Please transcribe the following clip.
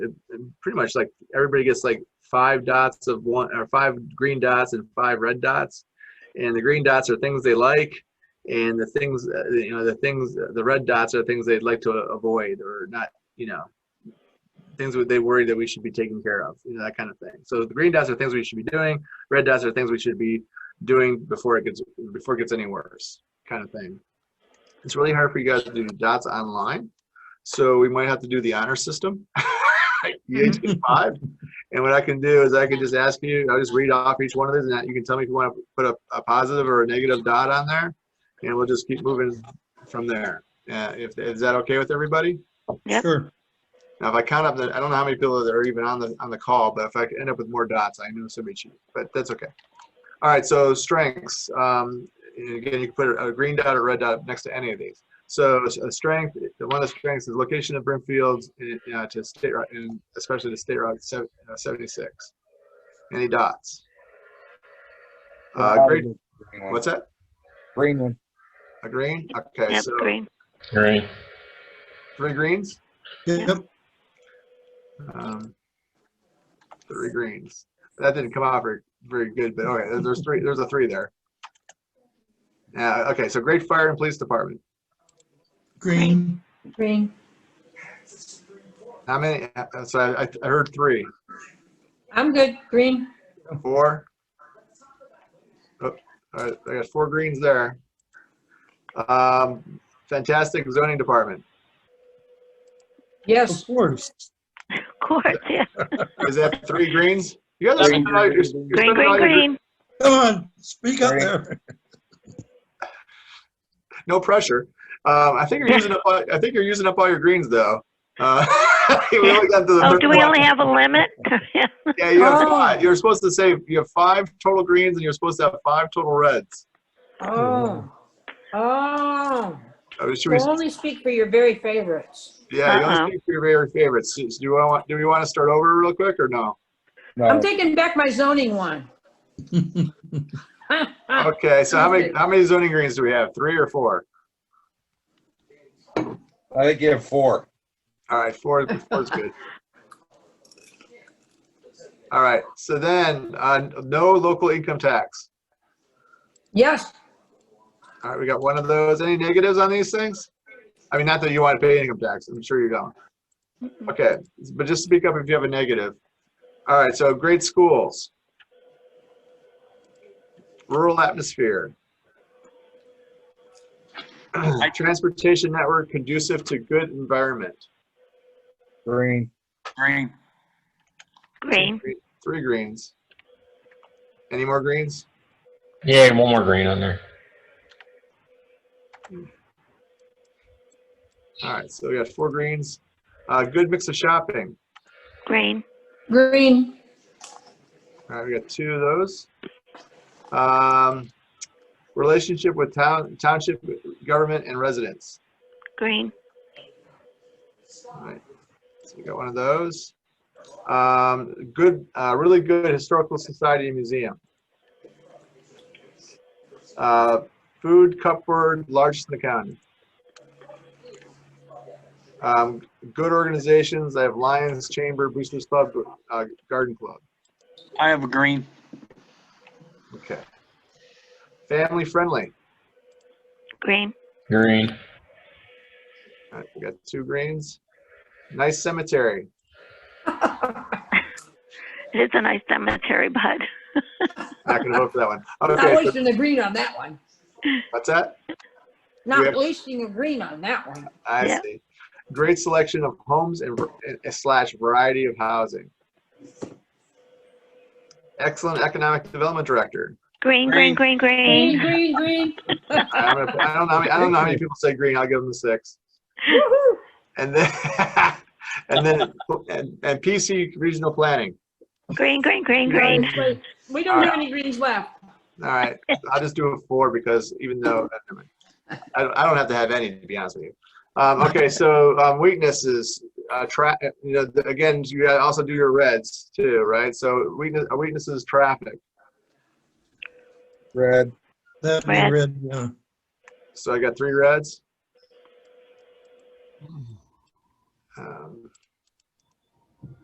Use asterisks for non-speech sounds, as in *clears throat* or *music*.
pretty much like everybody gets like five dots of one or five green dots and five red dots. And the green dots are things they like, and the things uh, you know the things the red dots are things they'd like to avoid or not you know things that they worry that we should be taking care of you know that kind of thing so the green dots are things we should be doing red dots are things we should be doing before it gets before it gets any worse kind of thing it's really hard for you guys to do dots online so we might have to do the honor system *laughs* EH5. and what I can do is I can just ask you, I'll just read off each one of these and you can tell me if you want to put a, a positive or a negative dot on there and we'll just keep moving from there. Uh, if, is that okay with everybody? Sure. Now, if I count up the, I don't know how many people that are even on the, on the call, but if I end up with more dots, I know somebody cheated, but that's okay. All right, so strengths. Um, and again, you can put a a green dot or red dot next to any of these. So s- a strength, one of the strengths is location of Brimfield uh, to state, Route- and especially to State Route sev- uh, 76. Any dots? Uh, great, Green one. what's that? Green one. A green? Okay, Yep, so green. Green, three greens? Yep. Um, three greens. That didn't come out very, very good, but all right, there- there's three, there's a three there. Yeah, okay, so great fire and police department. Green. Green. How many, uh, so I, I heard three, I'm good. Green. four? Oh, All right, I got four greens there. Um, fantastic zoning department. Of Yes. course. Of course, yeah. Is that three greens? You guys are Green, spending all your- you're green, Green, spending all green, your- green. Come on, speak up Green. there. no pressure. Um, I think you're using up, all- I think you're using up all your greens though. Uh, *laughs* we only got to the Oh, third do we one. only have a limit? *laughs* Yeah. Yeah, you have Oh. five. You're supposed to say you have five total greens and you're supposed to have five total reds. Oh. Oh. I was We'll sure. only speak for your very favorites. Yeah, you Uh-uh. only speak for your very favorites. So, Do you want? Do we want to start over real quick or no? No, I'm taking back my zoning one. *laughs* Okay. So how many Easy. how many zoning greens do we have? Three or four? I think you have four. All right, four four is good. All right. So then, uh, no local income tax. Yes. All right, we got one of those. Any negatives on these things? I mean, not that you want to pay income tax, I'm sure you don't. Okay, but just speak up if you have a negative. All right, so great schools. Rural atmosphere. *clears throat* Transportation network conducive to good environment. Green. Green, Green. Three greens. Any more greens? yeah, one more green on there. All right, so we got four greens. Uh, good mix of shopping. Green. Green. All right, we got two of those. Um, relationship with town, township government and residents. Green. All right, so we got one of those. Um, good, uh, really good historical society and museum. Uh, food cupboard, largest in the county. Um, good organizations, I have Lions Chamber, Boosters Club, uh, Garden Club. I have a green. Okay. Family friendly. Green. Green, All right, we got two greens. Nice cemetery. It's a nice cemetery, bud. Not gonna vote for that one. Not Okay, so wasting a green on that one. what's that? Not have- wasting a green on that one. I Yeah. see. Great selection of homes and and slash variety of housing. Excellent economic development director. Green, green, green, Green, green. green, green. *laughs* I'm gonna, I don't know. how many- I don't know how many people say green. I'll give them the six. Woo-hoo. And then, *laughs* and then, and, and PC regional planning. Green, green, green, green. Wait, We don't have any greens left. All right, I'll just do a four because even though, never mind. I, don't- I don't have to have any, to be honest with you. Um, okay, so, um, weaknesses, uh, tra, you know, th- again, you gotta also do your reds too, right? So weakness, uh, weaknesses, traffic. Red. That'd be Red. red, yeah. So I got three reds. Um,